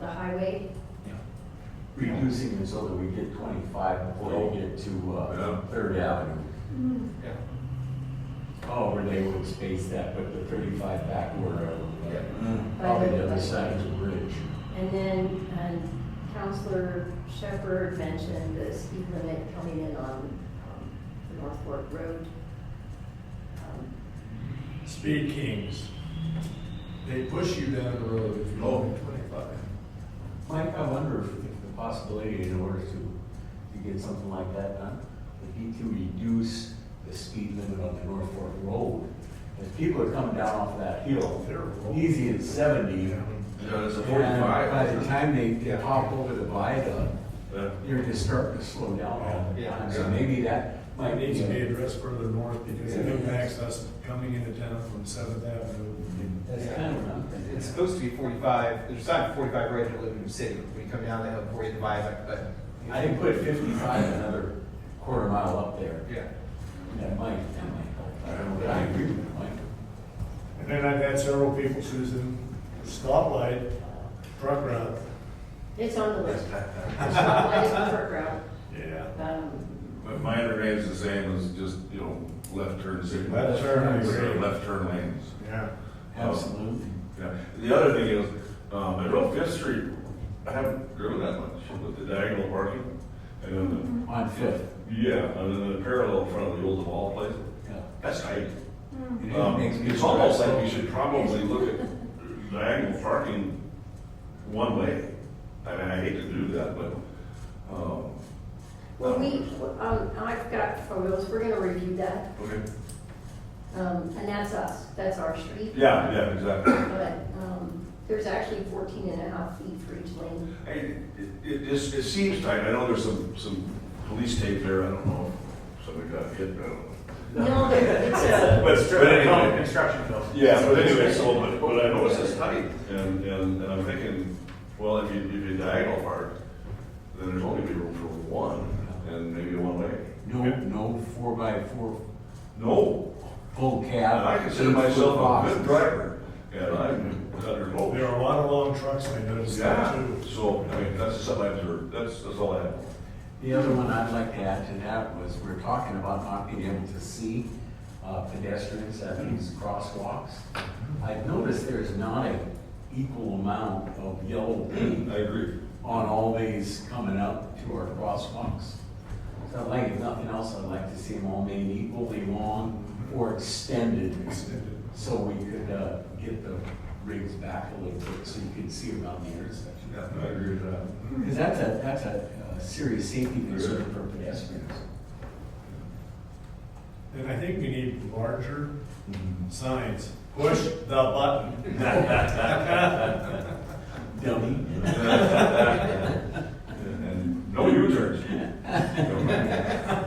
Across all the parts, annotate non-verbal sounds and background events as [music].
the highway, reducing it so that we get twenty-five before we get to, uh, Third Avenue. Yeah. Oh, where they would space that, but the thirty-five back where, uh, Yeah. probably the other side of the bridge. and then, and Counselor Shepherd mentioned the speed limit coming in on, um, the North Fork Road. Um, Speed Kings. They push you down the road if you're going twenty-five. Mike, I wonder if, if the possibility in order to, to get something like that done, would be to reduce the speed limit on the North Fork Road. If people are coming down off that hill, They're easy at seventy, Yeah, it's a and by the forty-five. time they, they hop over the viaduct, Yeah. you're just starting to slow down all the Yeah. time, so maybe that might It be. needs to be a- addressed further north because it impacts us coming into town from Seventh Avenue. That's kind of what I'm thinking. It's supposed to be forty-five, there's a sign for forty-five right in Liberty City, when you come down that hill before you divide viaduct, but. I can put fifty-five another quarter mile up there, Yeah. that might, that might help. I don't know, I agree with Mike. And then I've had several people, Susan, stoplight, truck route. It's on the list. It's on the list for crowd. Yeah. Um, But mine remains the same as just, you know, left turn signals. Left turn, I agree. Left turn lanes. Yeah. Absolutely. Yeah. The other thing is, um, I drove Fifth Street, I haven't driven that much with the diagonal parking. And then, On Fifth, the- yeah, and then the parallel in front of the old mall place. yeah. That's tight. It Um, makes me it's almost stressed. like we should probably look at diagonal parking one way. I mean, I hate to do that, but, um. Well, we, um, I've got photos, we're gonna review that, Okay. um, and that's us, that's our street. Yeah, yeah, exactly. But, um, there's actually 14 and a half feet for each lane. I- It, it, just- it seems tight, I know there's some, some police tape there, I don't know if somebody got hit, I don't know. No, there- it's a, But, but anyway, Construction fills. yeah, but anyway, so, but, but I noticed it's tight, and, and, and I'm thinking, well, if you, if you diagonal park, then there's only be room for one, and maybe one way. No, no four by four No, full and cab. I consider eight-foot myself box. a good driver, and I'm under both. There are a lot of long trucks, I noticed that Yeah, too. so, I mean, that's something I observed, that's, that's all I have. The other one I'd like to add to that was, we're talking about not being able to see uh, pedestrians at these crosswalks. I've noticed there's not a equal amount of yellow paint I agree. on all these coming up to our crosswalks. So I'd like, if nothing else, I'd like to see them all made equally long or extended, Extended. so we could uh, get the rigs back a little bit, so you can see around the intersection. Yeah, I agree with that. Because that's a, that's a uh, serious safety concern for pedestrians. And I think we need larger Mm-hmm. signs. Push the button. Dummy. And no U-turns.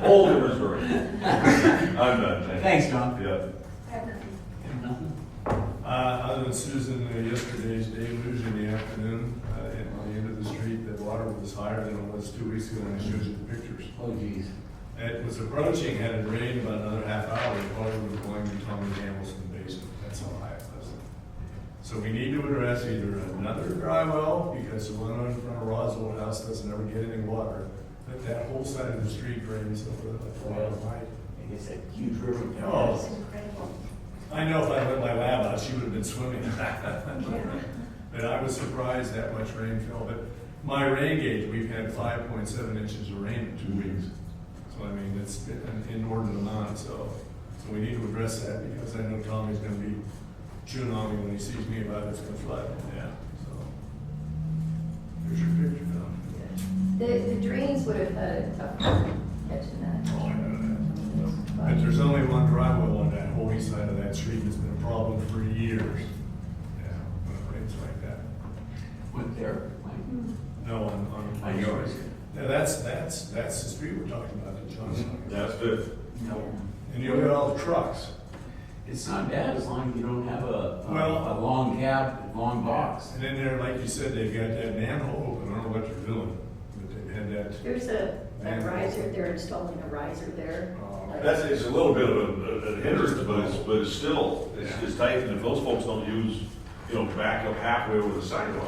Old Missouri. I'm not. Thanks, John. Yeah. Uh, other than Susan, uh, yesterday's deluge in the afternoon, uh, at the end of the street, the water was higher than it was two weeks ago when I showed you the pictures. Oh, geez. It was approaching, had it rained about another half hour, the water was going to Tommy Hamilton basement, that's how high it was. So we need to address either another dry well, because the one in front of Rod's old house doesn't ever get any water, but that whole side of the street drains over the water line. And It's a huge river. Oh. it's incredible. I know if I let my lab out, she would have been swimming. [laughs] But I was surprised that much rain fell, but my rain gauge, we've had five point seven inches of rain in two weeks. So I mean, it's been an inordinate amount, so, so we need to address that, because I know Tommy's gonna be chewing on me when he sees me about it, it's gonna flood, yeah, so. Here's your picture, Tom. The, the drains would have had a tough time catching that. Oh, I know that. But there's only one driveway on that whole east side of that street that's been a problem for years. Yeah, when it rains like that. Went there, Mike? No, on, on. On yours. Yeah, that's, that's, that's the street we're talking about, that John's talking Mm-hmm. about. That's good. No. And you'll get all the trucks. It's not bad as long as you don't have a, a, a Well- long cab, long box. And then there, like you said, they've got that manhole open, I don't know what they're doing, but they had that, There's a, a riser, they're installing a riser there. uh, That's, it's a little bit of a- a a hindrance, but it's, but it's still, it's, it's tight, and if those folks don't use, you know, back up halfway over the sidewalk,